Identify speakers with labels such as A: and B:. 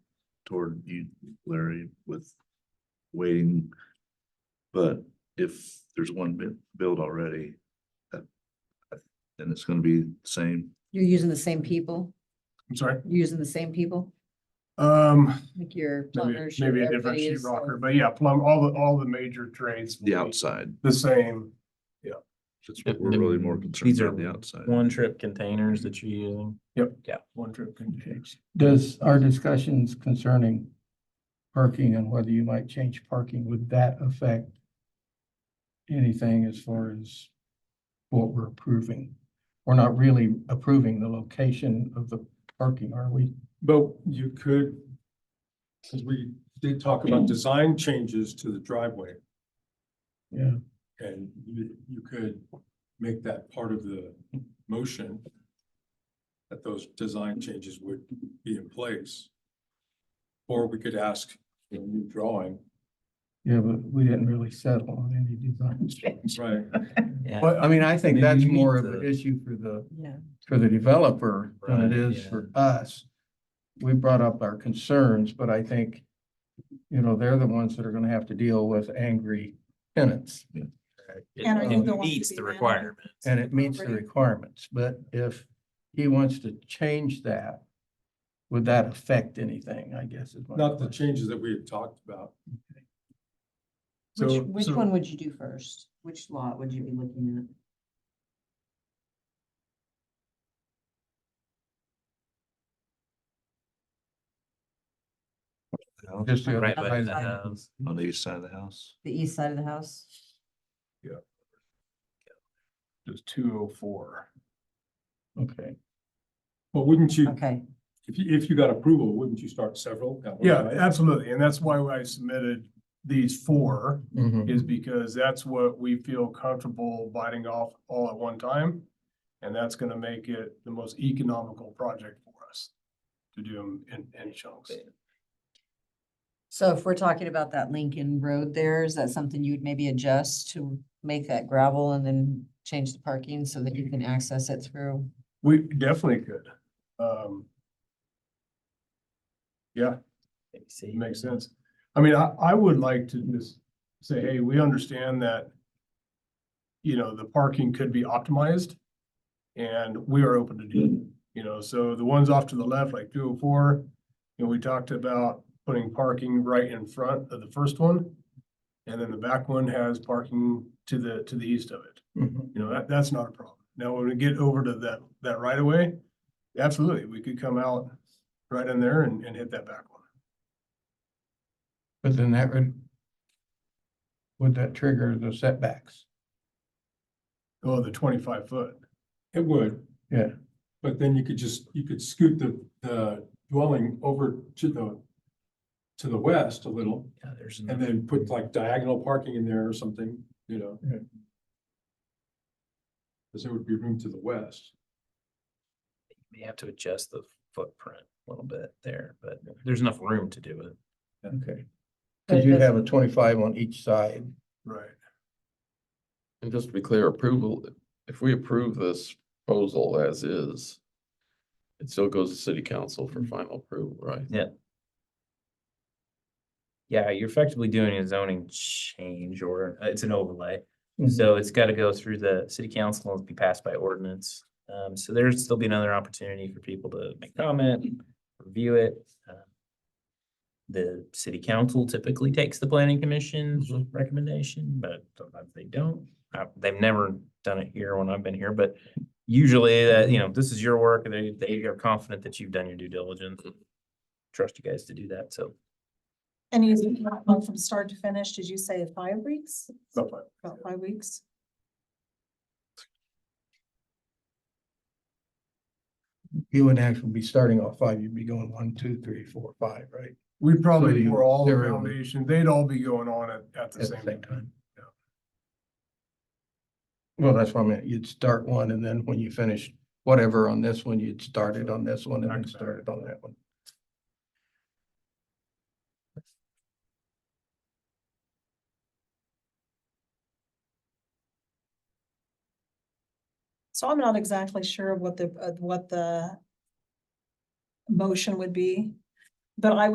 A: toward you, Larry, with waiting. But if there's one bit built already, that, then it's gonna be the same.
B: You're using the same people,
C: I'm sorry,
B: You're using the same people,
C: um,
B: like your
C: maybe,
B: plumbers. your-
C: maybe a different
B: everybody
C: sheet
B: is, uh,
C: rocker, but yeah, plumb, all the, all the major trades. will
A: The
C: be
A: outside,
C: The same,
A: that's what we're really more concerned
D: These are
A: about, the outside.
D: One trip containers that you're using.
C: one trip containers.
E: Does our discussions concerning parking and whether you might change parking, would that affect anything as far as what we're approving? We're not really approving the location of the parking, are we?
F: But you could, because we did talk about design changes to the driveway,
E: Yeah.
F: and you, you could make that part of the motion that those design changes would be in place. Or we could ask for a new drawing.
E: Yeah, but we didn't really settle on any design change.
F: Right.
D: Yeah.
E: But I mean, I think
D: Maybe
E: that's
D: you need
E: more of an
D: to-
E: issue for the,
B: No.
E: for the developer than it
D: Right,
E: is for us. We brought up our concerns, but I think, you know, they're the ones that are gonna have to deal with angry tenants.
D: It
G: And are
E: you
D: it
G: the ones to
D: meets
G: be
D: the
G: rented?
D: requirements.
E: And it meets the
G: Property.
E: requirements, but if he wants to change that, would that affect anything, I guess is my
F: Not the
E: question.
F: changes that we had talked about.
B: Which,
C: So-
B: which
C: so-
B: one would you do first? Which lot would you be looking at?
E: Just the
D: Right
E: other
D: by
E: side
D: the
E: of-
D: house.
A: On the east side of the house,
B: The east side of the house?
C: Just two oh four.
E: Okay,
F: But wouldn't you,
B: Okay,
F: if you, if you got approval, wouldn't you start several? at one
C: Yeah,
F: time?
C: absolutely, and that's why I submitted these four,
E: mm-hmm,
C: is because that's what we feel comfortable biting off all at one time. And that's gonna make it the most economical project for us to do them in, in chunks.
B: so if we're talking about that Lincoln Road there, is that something you would maybe adjust to make that gravel and then change the parking so that you can access it through?
C: We definitely could. Um, yeah,
D: See,
C: It Makes sense. I mean, I, I would like to just say, hey, we understand that, you know, the parking could be optimized and we are open to do, it, you know, so the ones off to the left, like two oh four, you know, we talked about putting parking right in front of the first one. And then the back one has parking to the, to the east of it.
E: Mhm.
C: You know, that, that's not a problem. Now, when we get over to that, that right of way, absolutely, we could come out right in there and, and hit that back one.
E: But then that would, would that trigger the setbacks?
C: Oh, the twenty-five foot.
F: It would.
E: Yeah.
F: But then you could just, you could scoot the, the dwelling over to the, to the west a little
D: yeah, there's
F: and
D: another-
F: then put like diagonal parking in there or something, you know?
E: Yeah.
F: Cause there would be room to the west.
D: you may have to adjust the footprint a little bit there, but there's enough room to do it.
E: Okay.
B: But
E: Cause
B: it
E: you'd
B: doesn't-
E: have a twenty-five on each side.
C: Right.
H: And just to be clear, approval, if we approve this proposal as is, it still goes to city council for
G: Mm-hmm.
H: final approval, right?
D: Yeah, you're effectively doing a zoning change or uh, it's an overlay. So it's got to go through the city council and be passed by ordinance. Um, so there'd still be another opportunity for people to make comment, review it. Uh, The city council typically takes the planning commission's recommendation, but sometimes they don't. Uh, they've never done it here when I've been here, but usually that, you know, this is your work and they, they are confident that you've done your due diligence. Trust you guys to do that, so.
G: And you said that one from start to finish, did you say five weeks?
C: Okay.
G: About five weeks?
E: You wouldn't actually be starting off five, you'd be going one, two, three, four, five, right?
C: We'd
E: So
C: probably
E: you-
C: pour all the
E: there it would-
C: foundation, they'd all be going on at, at the same time. yeah.
E: Well, that's what I meant. You'd start one and then when you finish whatever on this one, you'd start it on this one and then
C: Exactly.
E: start it on that one.
G: So I'm not exactly uh, sure of what the, of what the motion would be, but I